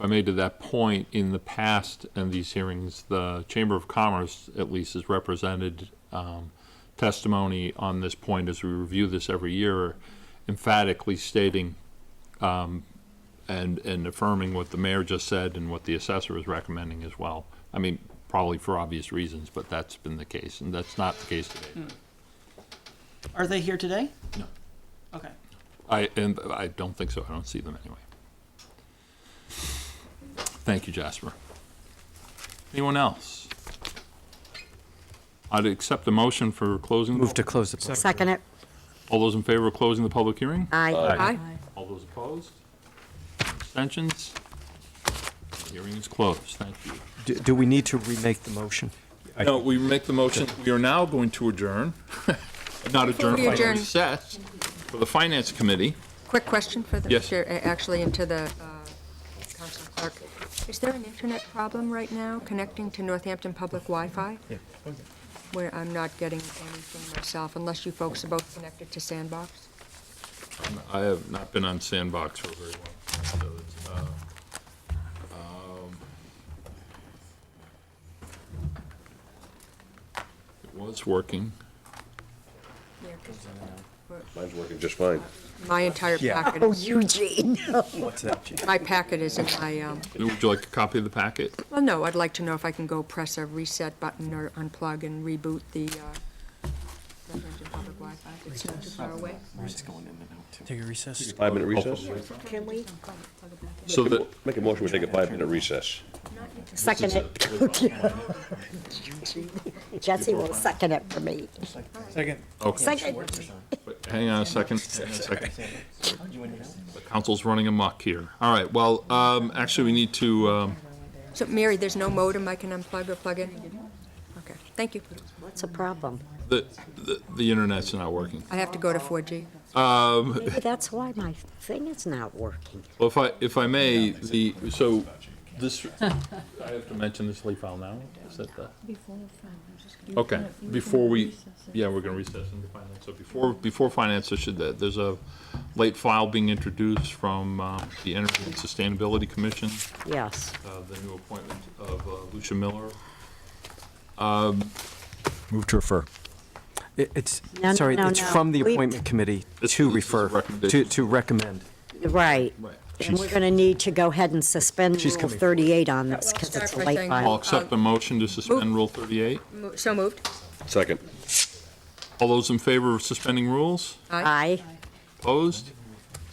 I made to that point, in the past in these hearings, the Chamber of Commerce at least has represented um, testimony on this point as we review this every year, emphatically stating um, and, and affirming what the mayor just said and what the assessor is recommending as well. I mean, probably for obvious reasons, but that's been the case, and that's not the case today. Are they here today? No. Okay. I, and I don't think so, I don't see them anyway. Thank you, Jasper. Anyone else? I'd accept a motion for closing. Move to close the public. Second it. All those in favor of closing the public hearing? Aye. Aye. All those opposed? Abstentions? Hearing is closed, thank you. Do- Do we need to remake the motion? No, we make the motion, we are now going to adjourn, not adjourn, we but adjourn- recess for the Finance Committee. Quick question for the, Yes. chair- uh, actually, into the uh, council clerk. Is there an internet problem right now connecting to Northampton Public Wi-Fi? Where I'm not getting anything myself, unless you folks are both connected to Sandbox? I have not been on Sandbox for very long, so it's, uh, um, it was working. Yeah, 'cause Mine's working just fine. My entire Yeah. packet. Oh, Eugene. My packet is in my, um, Would you like a copy of the packet? well, no, I'd like to know if I can go press a reset button or unplug and reboot the uh, Northampton Public Wi-Fi. It's not too far away. Take a recess. Five-minute recess? Can we? So that, Make a motion, we take a five-minute recess. Second it. Jesse will second it for me. okay, Second. but hang on a second, hang on a second. The council's running amok here. All right, well, um, actually, we need to, um, So, Mary, there's no modem I can unplug or plug in? Okay, thank you. What's the problem? the, the, the internet's not working. I have to go to 4G. Maybe that's why my thing is not working. Well, if I, if I may, the, so, this, I have to mention this leaf file now? Is that the? Okay, before we, yeah, we're gonna recess into finance, so before, before finance, I should, uh, there's a late file being introduced from uh, the Energy and Sustainability Commission, Yes. uh, the new appointment of uh, Lucia Miller. Move to refer. It's, No, no, sorry, no, it's no. from the We- appointment committee This- to this is a refer, to recommendation. to recommend. Right. Right. And we're going to need to go ahead and suspend She's Rule coming. 38 on this because Start it's a by late saying- I'll file. accept the motion to suspend Rule 38. Mo- So moved. Second. All those in favor of suspending rules? Aye. Opposed?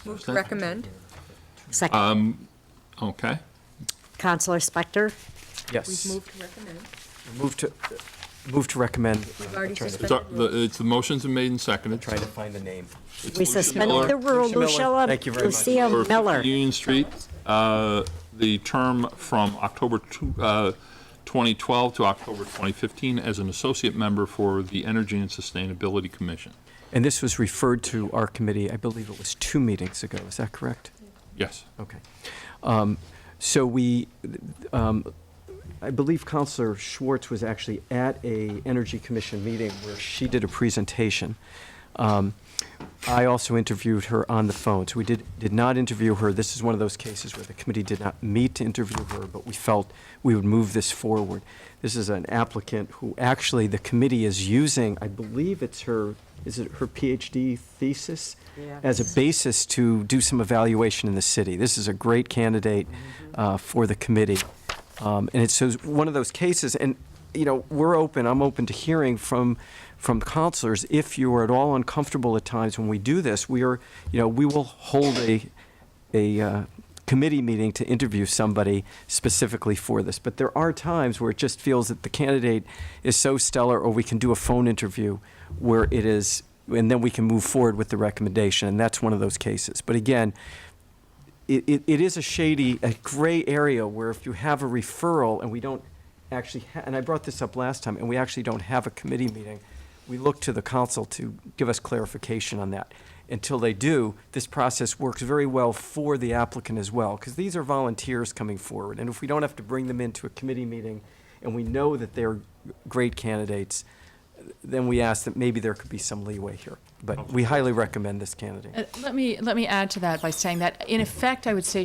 Moved to recommend. Uh, Second. Okay. Counselor Spector? Yes. Moved to recommend. Move to, move to recommend. We've already Trying to- It's, our- suspended. rules. the- it's, the motion's been made and seconded. Trying to find the name. It's We Lucia Miller. suspended the rule. Lucia Miller. Lucia, Thank you very much. Lucia for Miller. Union Street, uh, the term from October two- uh, 2012 to October 2015 as an associate member for the Energy and Sustainability Commission. And this was referred to our committee, I believe it was two meetings ago, is that correct? Yes. Okay. Um, So we, um, I believe Counselor Schwartz was actually at a Energy Commission meeting where she did a presentation. Um, I also interviewed her on the phone, so we did, did not interview her. This is one of those cases where the committee did not meet to interview her, but we felt we would move this forward. This is an applicant who actually the committee is using, I believe it's her, is it her PhD thesis? Yeah. As a basis to do some evaluation in the city. This is a great candidate uh, for the committee. Um, And it's so it's one of those cases, and, you know, we're open, I'm open to hearing from, from counselors. If you are at all uncomfortable at times when we do this, we are, you know, we will hold a, a uh, committee meeting to interview somebody specifically for this. But there are times where it just feels that the candidate is so stellar, or we can do a phone interview where it is, and then we can move forward with the recommendation, and that's one of those cases. But again, it, it, it is a shady, a gray area where if you have a referral and we don't actually, ha- and I brought this up last time, and we actually don't have a committee meeting, we look to the council to give us clarification on that. Until they do, this process works very well for the applicant as well, because these are volunteers coming forward. And if we don't have to bring them into a committee meeting and we know that they're great candidates, then we ask that maybe there could be some leeway here. But we highly recommend this candidate. Uh, Let me, let me add to that by saying that, in effect, I would say